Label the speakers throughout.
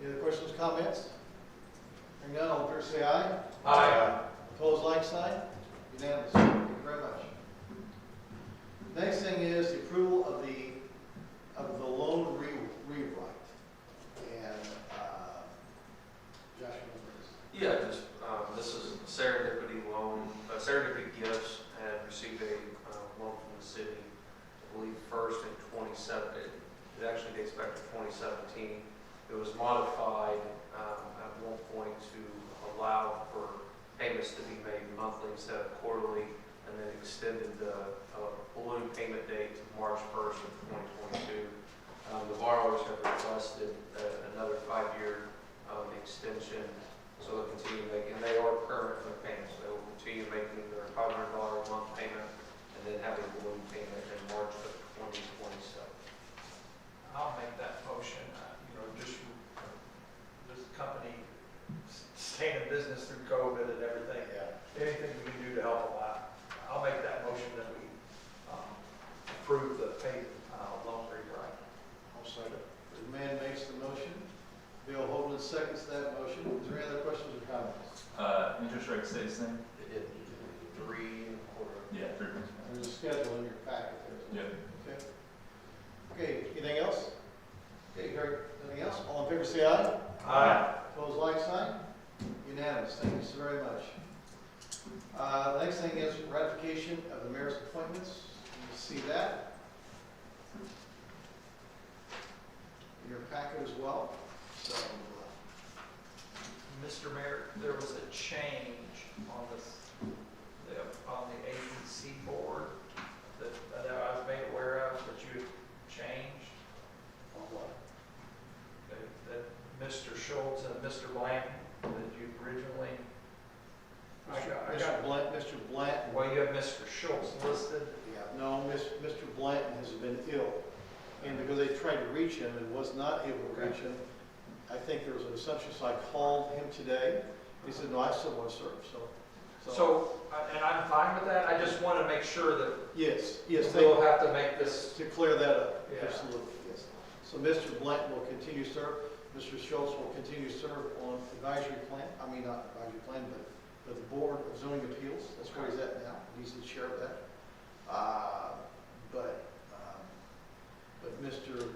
Speaker 1: Any other questions, comments? Hearing none, all in favor say aye.
Speaker 2: Aye.
Speaker 1: Opposed, like sign? Unanimous. Thank you very much. Next thing is the approval of the, of the loan re- rewrite. And, uh, Josh, you
Speaker 2: Yeah, just, um, this is Serendipity Loan, uh, Serendipity Gifts had received a, uh, loan from the city, I believe first in twenty seven, it actually dates back to twenty seventeen. It was modified, um, at one point to allow for payments to be made monthly instead of quarterly, and then extended the, uh, balloon payment date to March first of twenty twenty-two. Um, the borrowers have requested, uh, another five-year, um, extension, so they'll continue making, and they are current in their payments, they will continue making their five hundred dollar a month payment, and then have a balloon payment in March of twenty twenty-seven.
Speaker 3: I'll make that motion, uh, you know, just, this company s- staying in business through COVID and everything,
Speaker 1: Yeah.
Speaker 3: anything we can do to help them out. I'll make that motion that we um, approve the pay, uh, loan rewrite.
Speaker 1: I'll second. The man makes the motion. Bill Holden seconds that motion. Is there any other questions or comments?
Speaker 4: Uh, interest rate stays the same?
Speaker 2: It did three and a quarter.
Speaker 4: Yeah, three percent.
Speaker 1: There's a schedule in your packet there.
Speaker 4: Yep.
Speaker 1: Okay. Okay, anything else? Okay, hearing, anything else? All in favor say aye.
Speaker 3: Aye.
Speaker 1: Opposed, like sign? Unanimous, thank you so very much. Uh, the next thing is ratification of the mayor's appointments, you see that. In your packet as well, so, uh,
Speaker 3: Mr. Mayor, there was a change on this, the- on the ABC board that that I was made aware of, that you had changed.
Speaker 1: on what?
Speaker 3: that that Mr. Schultz and Mr. Blanton that you originally, I got, I
Speaker 1: Mr.
Speaker 3: got,
Speaker 1: Blanton, Mr. Blanton,
Speaker 3: well, you have Mr. Schultz listed.
Speaker 1: yeah, no, Miss- Mr. Blanton has been ill. And because they tried to reach him and was not able to reach him, I think there was an assumption, so I called him today. He said, no, I still want to serve, so.
Speaker 3: So, I- and I'm fine with that, I just want to make sure that
Speaker 1: Yes, yes, thank
Speaker 3: we'll have to make this,
Speaker 1: To clear that up,
Speaker 3: Yeah.
Speaker 1: absolutely, yes. So Mr. Blanton will continue to serve, Mr. Schultz will continue to serve on advisory plan, I mean, not advisory plan, but, but the Board of Zoning Appeals, that's where he's at now, he's the chair of that. Uh, But, um, but Mr.,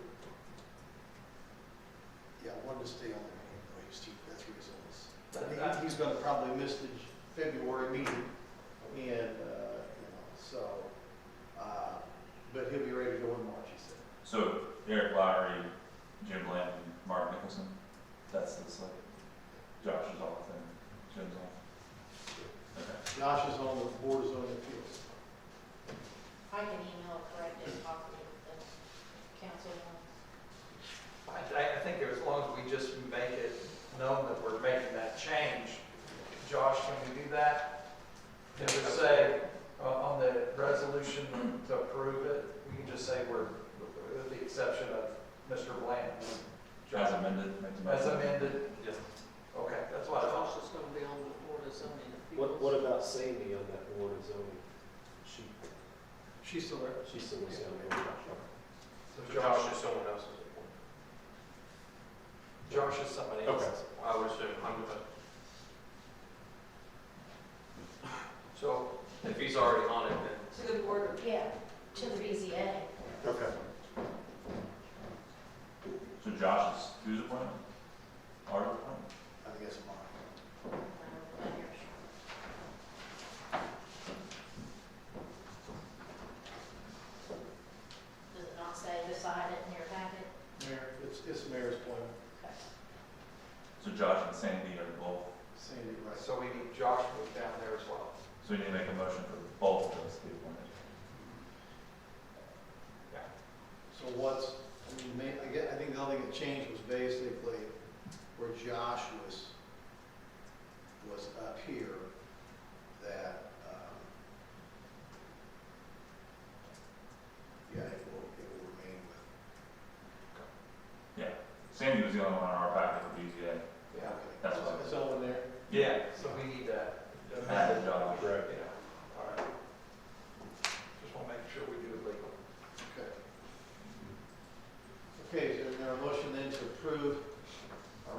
Speaker 1: yeah, I wanted to stay on there anyway, he's chief, that's where he's on this. But he- He's gonna probably miss the February meeting, and, uh, you know, so, uh, but he'll be ready to go in March, he said.
Speaker 4: So Eric Lowry, Jim Blanton, Mark Nicholson, that's the select. Josh is off and Jim's off. Okay.
Speaker 1: Josh is on the Board of Zoning Appeals.
Speaker 5: I can email a corrected copy of the council one.
Speaker 3: I, I think as long as we just make it known that we're making that change. Josh, can we do that? It would say, uh, on the resolution to approve it, we can just say we're, with the exception of Mr. Blanton.
Speaker 4: As amended, make the motion.
Speaker 3: As amended?
Speaker 2: Yes.
Speaker 3: Okay, that's what I thought.
Speaker 5: is gonna be on the board of zoning
Speaker 6: What, what about Sandy on that board of zoning? She,
Speaker 1: She's still there.
Speaker 6: she still was down there.
Speaker 3: So
Speaker 2: Josh
Speaker 3: Josh,
Speaker 2: is someone else's.
Speaker 3: Josh is somebody
Speaker 6: Okay.
Speaker 3: else.
Speaker 2: I would assume, I'm,
Speaker 3: So,
Speaker 2: if he's already on it, then
Speaker 5: To the board. Yeah, to the BZA.
Speaker 6: Okay.
Speaker 4: So Josh is, who's appointed? Our appointment?
Speaker 1: I think that's mine.
Speaker 5: Does it not say beside it in your packet?
Speaker 1: Mayor, it's, it's the mayor's appointment,
Speaker 4: So Josh and Sandy are both,
Speaker 1: Sandy Rice.
Speaker 3: so we need Josh moved down there as well.
Speaker 4: so we need to make a motion for both of us to be appointed.
Speaker 1: So what's, I mean, ma- I get, I think the only thing that changed was basically where Josh was, was up here, that, um, yeah, it will, it will remain with.
Speaker 4: Sandy was the only one in our packet with BZA.
Speaker 3: Yeah.
Speaker 1: okay.
Speaker 4: That's fine.
Speaker 1: It's all in there.
Speaker 3: Yeah, so we need that.
Speaker 4: Amended Josh.
Speaker 3: Yeah,
Speaker 6: Right.
Speaker 3: all right. Just want to make sure we do it legal.
Speaker 1: Okay. Okay, is there a motion then to approve